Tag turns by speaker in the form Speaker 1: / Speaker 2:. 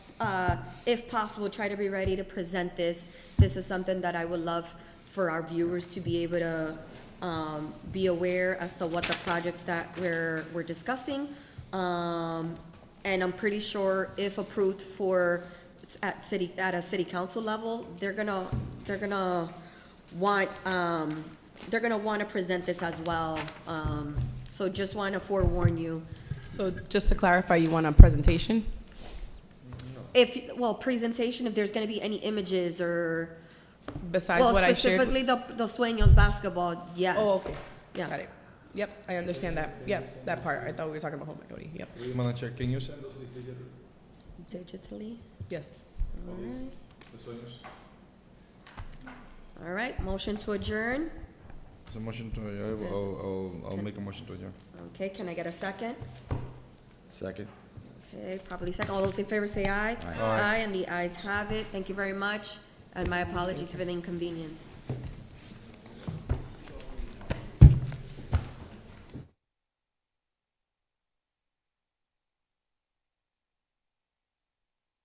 Speaker 1: uh, if possible, try to be ready to present this. This is something that I would love for our viewers to be able to um, be aware as to what the projects that we're, we're discussing. Um, And I'm pretty sure if approved for, s- at city, at a city council level, they're gonna, they're gonna want, um, they're gonna wanna present this as well. Um, So just wanna forewarn you.
Speaker 2: So just to clarify, you want a presentation?
Speaker 1: If, well, presentation, if there's gonna be any images or,
Speaker 2: Besides
Speaker 1: well,
Speaker 2: what I shared? with-
Speaker 1: specifically the, the Sueños basketball, yes.
Speaker 2: Oh, okay. Got
Speaker 1: Yeah.
Speaker 2: it. Yep, I understand that. Yep, that part. I thought we were talking about home equity. Yep.
Speaker 3: Manager, can you send us these digitally?
Speaker 1: Digitally,
Speaker 2: Yes.
Speaker 1: all right. All right, motion to adjourn.
Speaker 3: It's a motion to, adjourn. I'll, I'll, I'll make a motion to adjourn.
Speaker 1: Okay, can I get a second?
Speaker 3: Second.
Speaker 1: Okay, probably second. All those in favor say aye.
Speaker 3: Aye.
Speaker 1: and the ayes have it. Thank you very much, and my apologies for the inconvenience.